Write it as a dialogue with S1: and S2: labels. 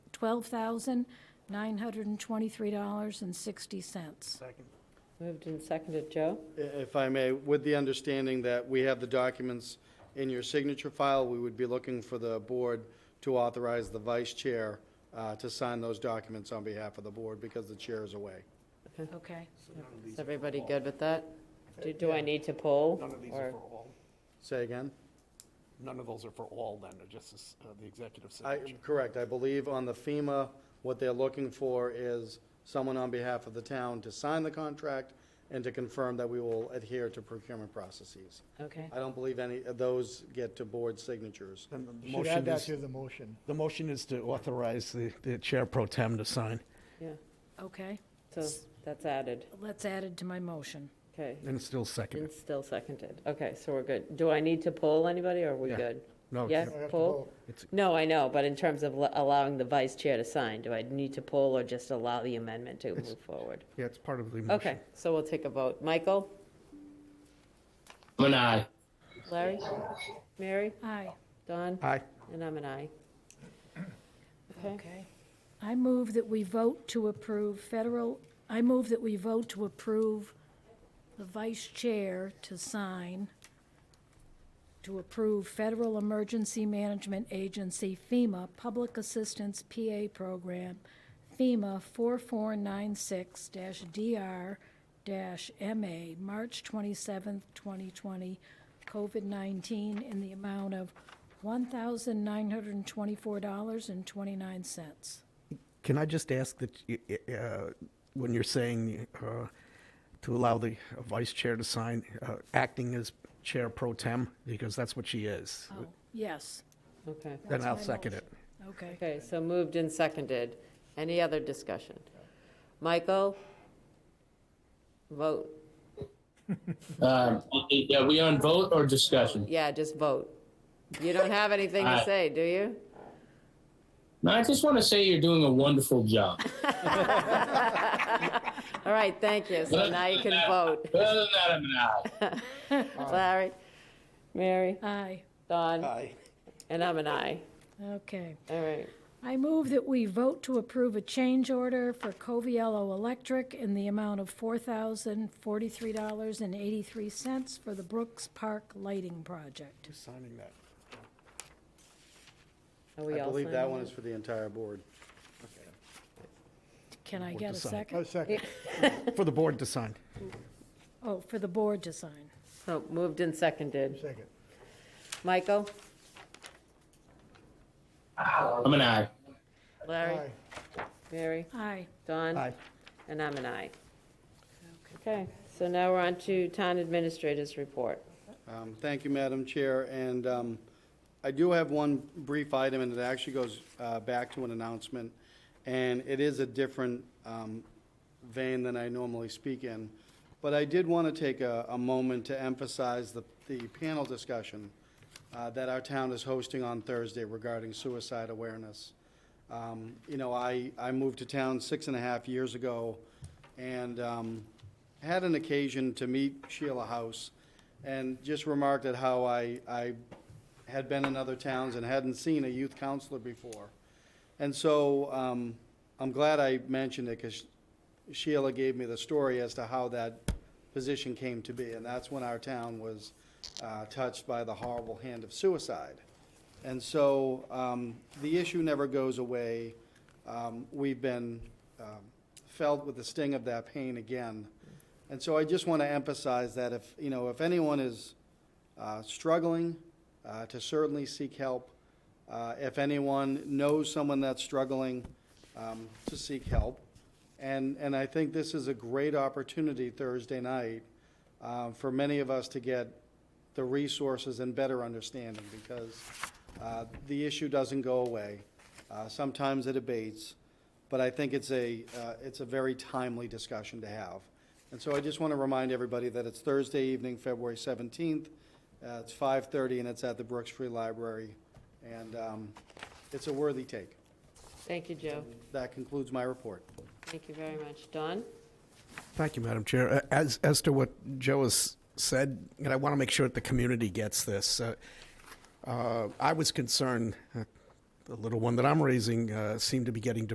S1: $12,923.60.
S2: Second.
S3: Moved and seconded, Joe?
S4: I- If I may, with the understanding that we have the documents in your signature file, we would be looking for the board to authorize the vice chair uh, to sign those documents on behalf of the board because the chair is away.
S1: Okay.
S3: Is everybody good with that? Do, do I need to poll?
S2: None of these
S3: or-
S2: are for all.
S4: Say again?
S2: None of those are for all then, they're just as, uh, the executive
S4: I,
S2: signature.
S4: correct, I believe on the FEMA, what they're looking for is someone on behalf of the town to sign the contract and to confirm that we will adhere to procurement processes.
S3: Okay,
S4: I don't believe any of those get to board signatures.
S2: Then the
S5: Should
S2: motion
S5: add that
S2: is-
S5: to the motion.
S2: The motion is to authorize the, the Chair Pro Tem to sign.
S3: yeah,
S1: Okay,
S3: so that's added.
S1: let's add it to my motion.
S3: Okay,
S2: And it's still second.
S3: and still seconded. Okay, so we're good. Do I need to poll anybody, or are we
S2: Yeah.
S3: good?
S2: No,
S3: Yes,
S5: I have to
S3: poll?
S5: vote.
S3: No, I know, but in terms of l- allowing the vice chair to sign, do I need to poll or just allow the amendment to move forward?
S2: Yeah, it's part of the motion.
S3: Okay, so we'll take a vote. Michael?
S6: I'm an aye.
S3: Larry? Mary?
S1: Aye.
S3: Don?
S2: Aye.
S3: And I'm an aye. Okay,
S1: Okay. I move that we vote to approve federal, I move that we vote to approve the vice chair to sign to approve Federal Emergency Management Agency FEMA Public Assistance PA Program, FEMA 4496-DR-MA, March 27th, 2020, COVID-19, in the amount of $1,924.29.
S2: Can I just ask that, y- y- uh, when you're saying uh, to allow the vice chair to sign, uh, acting as chair pro tem, because that's what she is,
S1: Oh, yes.
S3: okay.
S2: then
S1: That's
S2: I'll
S1: my
S2: second it.
S1: motion. Okay.
S3: Okay, so moved and seconded. Any other discussion? Michael? Vote.
S6: Um, yeah, we on vote or discussion?
S3: Yeah, just vote. You don't have anything to
S6: Aye.
S3: say, do you?
S6: No, I just want to say you're doing a wonderful job.
S3: All right, thank you. So now you can vote.
S6: Other than that, I'm an aye.
S3: Larry? Mary?
S1: Aye.
S3: Don?
S2: Aye.
S3: And I'm an aye.
S1: Okay.
S3: All right.
S1: I move that we vote to approve a change order for Coviello Electric in the amount of $4,043.83 for the Brooks Park Lighting Project.
S2: Who's signing that?
S3: Are we
S4: I
S3: all
S4: believe
S3: signing
S4: that one is for the entire board.
S1: Can I get a
S2: decide.
S1: second?
S5: Oh, second.
S2: For the board to sign.
S1: Oh, for the board to sign.
S3: So moved and seconded.
S5: Second.
S3: Michael?
S6: I'm an aye.
S3: Larry?
S5: Aye.
S3: Mary?
S1: Aye.
S3: Don?
S2: Aye.
S3: And I'm an aye. Okay, so now we're on to town administrators' report.
S4: Um, Thank you, Madam Chair, and um, I do have one brief item, and it actually goes uh, back to an announcement, and it is a different um, vein than I normally speak in, but I did want to take a a moment to emphasize the the panel discussion uh, that our town is hosting on Thursday regarding suicide awareness. Um, You know, I, I moved to town six and a half years ago and um, had an occasion to meet Sheila House and just remarked at how I, I had been in other towns and hadn't seen a youth counselor before. And so um, I'm glad I mentioned it because Sheila gave me the story as to how that position came to be. And that's when our town was uh, touched by the horrible hand of suicide. And so um, the issue never goes away. Um, We've been um, felt with the sting of that pain again. And so I just want to emphasize that if, you know, if anyone is uh, struggling, uh, to certainly seek help. Uh, If anyone knows someone that's struggling, um, to seek help. And, and I think this is a great opportunity Thursday night uh, for many of us to get the resources and better understanding because uh, the issue doesn't go away. Uh, Sometimes it abates, but I think it's a, uh, it's a very timely discussion to have. And so I just want to remind everybody that it's Thursday evening, February 17th. Uh, It's 5:30 and it's at the Brooks Free Library. And um, it's a worthy take.
S3: Thank you, Joe.
S4: That concludes my report.
S3: Thank you very much. Don?
S7: Thank you, Madam Chair. Uh, As, as to what Joe has said, and I want to make sure that the community gets this, uh, uh, I was concerned uh,
S2: the little one that I'm raising uh, seemed to be getting